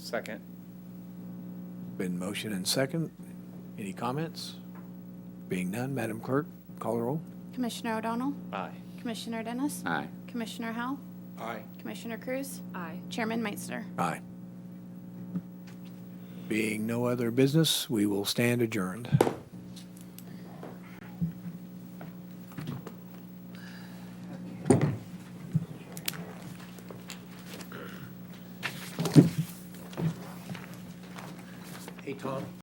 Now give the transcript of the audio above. Second. Been motion and second. Any comments? Being none, Madam Clerk, call the roll. Commissioner O'Donnell, Aye. Commissioner Dennis, Aye. Commissioner Howell, Aye. Commissioner Cruz, Aye. Chairman Meitzner. Aye. Being no other business, we will stand adjourned. Hey, Tom.